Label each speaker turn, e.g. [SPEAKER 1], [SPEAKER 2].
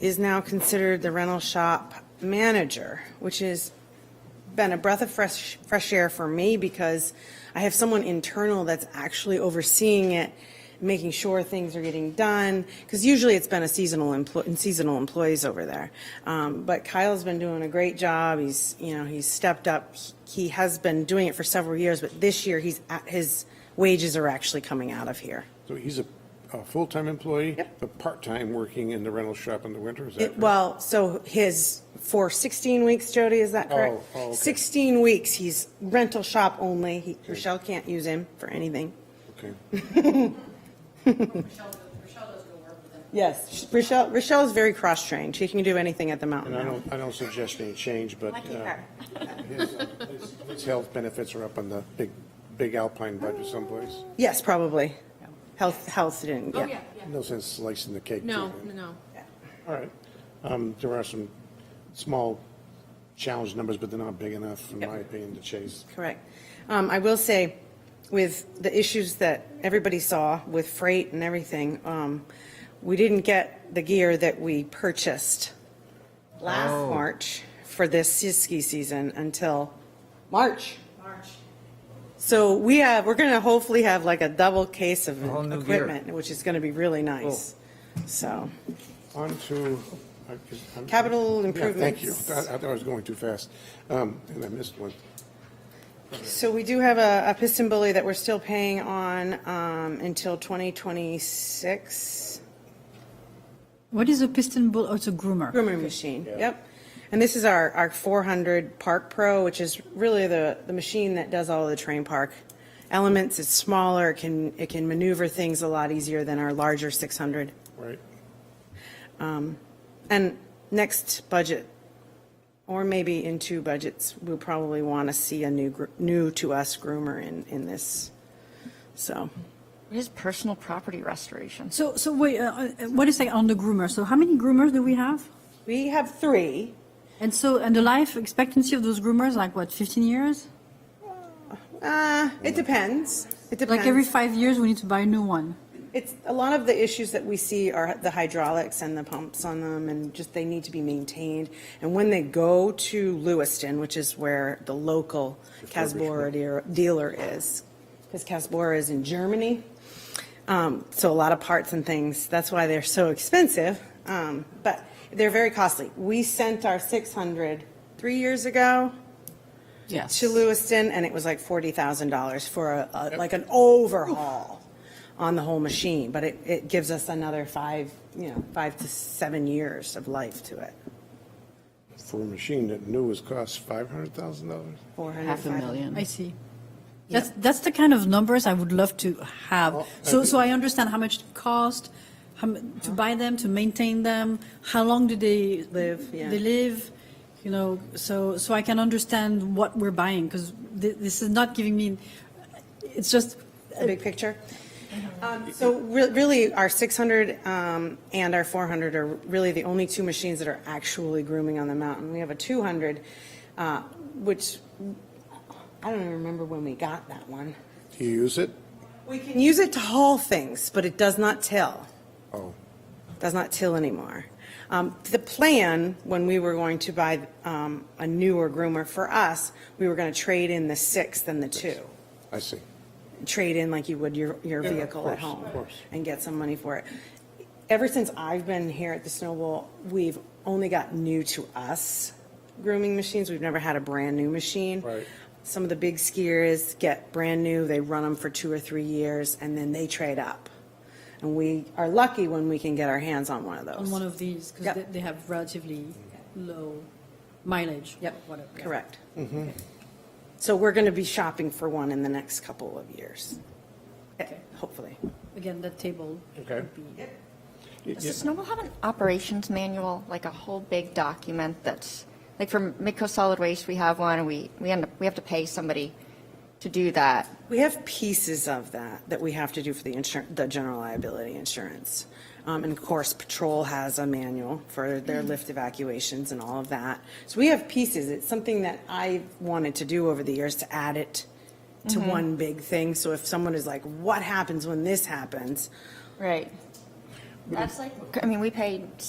[SPEAKER 1] is now considered the rental shop manager, which has been a breath of fresh, fresh air for me because I have someone internal that's actually overseeing it, making sure things are getting done, because usually it's been a seasonal employee, seasonal employees over there. Um, but Kyle's been doing a great job. He's, you know, he's stepped up. He has been doing it for several years, but this year he's, at- his wages are actually coming out of here.
[SPEAKER 2] So he's a, a full-time employee?
[SPEAKER 1] Yep.
[SPEAKER 2] But part-time working in the rental shop in the winter, is that
[SPEAKER 1] It-
[SPEAKER 2] correct?
[SPEAKER 1] Well, so his, for 16 weeks, Jody, is that correct?
[SPEAKER 2] Oh, oh, okay.
[SPEAKER 1] 16 weeks, he's rental shop only. He- Rochelle can't use him for anything.
[SPEAKER 2] Okay.
[SPEAKER 3] Rochelle, Rochelle does go work with them.
[SPEAKER 1] Yes. Rochelle, Rochelle's very cross-trained. She can do anything at the mountain
[SPEAKER 2] And I
[SPEAKER 1] now.
[SPEAKER 2] don't, I don't suggest any change, but.
[SPEAKER 1] Lucky
[SPEAKER 2] uh,
[SPEAKER 1] her.
[SPEAKER 2] his- His health benefits are up on the big, big Alpine budget someplace.
[SPEAKER 1] Yes, probably. Health, health didn't,
[SPEAKER 3] Oh,
[SPEAKER 1] yeah.
[SPEAKER 3] yeah, yeah.
[SPEAKER 2] No sense slicing the cake. too
[SPEAKER 3] No,
[SPEAKER 2] thin.
[SPEAKER 3] no.
[SPEAKER 2] All right. Um, There are some small challenge numbers, but they're not big enough, in my opinion, to chase.
[SPEAKER 1] Correct. Um, I will say, with the issues that everybody saw with freight and everything, um, we didn't get the gear that we purchased last
[SPEAKER 4] Oh.
[SPEAKER 1] March for this ski season until March.
[SPEAKER 3] March.
[SPEAKER 1] So we have, we're going to hopefully have like a double case of
[SPEAKER 4] whole new gear.
[SPEAKER 1] equipment, which is going to be really nice. So,
[SPEAKER 2] On to. I- I'm-
[SPEAKER 1] Capital
[SPEAKER 2] Yeah, Thank you.
[SPEAKER 1] improvements.
[SPEAKER 2] I I thought I was going too fast, Um, and I missed one.
[SPEAKER 1] so we do have a a piston bully that we're still paying on um, until 2026.
[SPEAKER 5] What is a piston bull? Oh, it's a groomer.
[SPEAKER 1] Groomer machine, yep. And this is our, our 400 Park Pro, which is really the, the machine that does all of the train park elements. It's smaller, it can, it can maneuver things a lot easier than our larger 600.
[SPEAKER 2] Right.
[SPEAKER 1] And next budget, or maybe in two budgets, we'll probably want to see a new, gr- new to us groomer in, in this, so.
[SPEAKER 6] It is personal property restoration.
[SPEAKER 5] So, so wait, uh, uh, what is like on the groomer? So how many groomers do we have?
[SPEAKER 1] We have three,
[SPEAKER 5] And so, and the life expectancy of those groomers, like what, 15 years?
[SPEAKER 1] uh, it depends, it depends.
[SPEAKER 5] Like every five years, we need to buy a new one.
[SPEAKER 1] It's, a lot of the issues that we see are the hydraulics and the pumps on them, and just they need to be maintained. And when they go to Lewiston, which is where the local Casbora dear- dealer is, because Casbora is in Germany, um, so a lot of parts and things, that's why they're so expensive, um, but they're very costly. We sent our 600 three years ago
[SPEAKER 6] Yes.
[SPEAKER 1] to Lewiston, and it was like forty thousand dollars for a, a, like an overhaul on the whole machine, but it, it gives us another five, you know, five to seven years of life to it.
[SPEAKER 2] For a machine that new was cost $500,000?
[SPEAKER 1] Four hundred.
[SPEAKER 6] Half a
[SPEAKER 5] I
[SPEAKER 6] million.
[SPEAKER 5] see. That's, that's the kind of numbers I would love to have. So, so I understand how much it cost, how, mu-
[SPEAKER 1] Uh-huh.
[SPEAKER 5] to buy them, to maintain them, how long do they?
[SPEAKER 1] Live, yeah.
[SPEAKER 5] They live, you know, so, so I can understand what we're buying, because this is not giving me, it's just,
[SPEAKER 1] The big picture. Um, so re- really, our six hundred, um, and our four hundred are really the only two machines that are actually grooming on the mountain. We have a two hundred, uh, which, I don't even remember when we got that one.
[SPEAKER 2] Do you use it?
[SPEAKER 1] We can use it to haul things, but it does not till.
[SPEAKER 2] Oh.
[SPEAKER 1] does not till anymore. Um, The plan, when we were going to buy um, a newer groomer for us, we were going to trade in the sixth and the two.
[SPEAKER 2] I see.
[SPEAKER 1] Trade in like you would your, your
[SPEAKER 2] of
[SPEAKER 1] vehicle at
[SPEAKER 2] course,
[SPEAKER 1] home.
[SPEAKER 2] of course.
[SPEAKER 1] And get some money for it. Ever since I've been here at the Snowball, we've only got new to us grooming machines. We've never had a brand-new machine.
[SPEAKER 2] Right.
[SPEAKER 1] Some of the big skiers get brand-new, they run them for two or three years, and then they trade up. And we are lucky when we can get our hands on one of those.
[SPEAKER 5] on one of these, because
[SPEAKER 1] Yep.
[SPEAKER 5] they, they have relatively low mileage.
[SPEAKER 1] Yep,
[SPEAKER 5] whatever. yeah.
[SPEAKER 1] correct. So we're going to be shopping for one in the next couple of years, Eh, hopefully.
[SPEAKER 5] Again, that table.
[SPEAKER 2] Okay.
[SPEAKER 5] would be-
[SPEAKER 6] Does the Snowball have an operations manual, like a whole big document that's, like for Midco Solid Waste, we have one, and we, we end up, we have to pay somebody to do that.
[SPEAKER 1] We have pieces of that that we have to do for the insurance, the general liability insurance. Um, And of course, Patrol has a manual for their lift evacuations and all of that. So we have pieces. It's something that I wanted to do over the years, to add it to one big thing. So if someone is like, what happens when this happens?
[SPEAKER 6] Right. That's like, I mean, we paid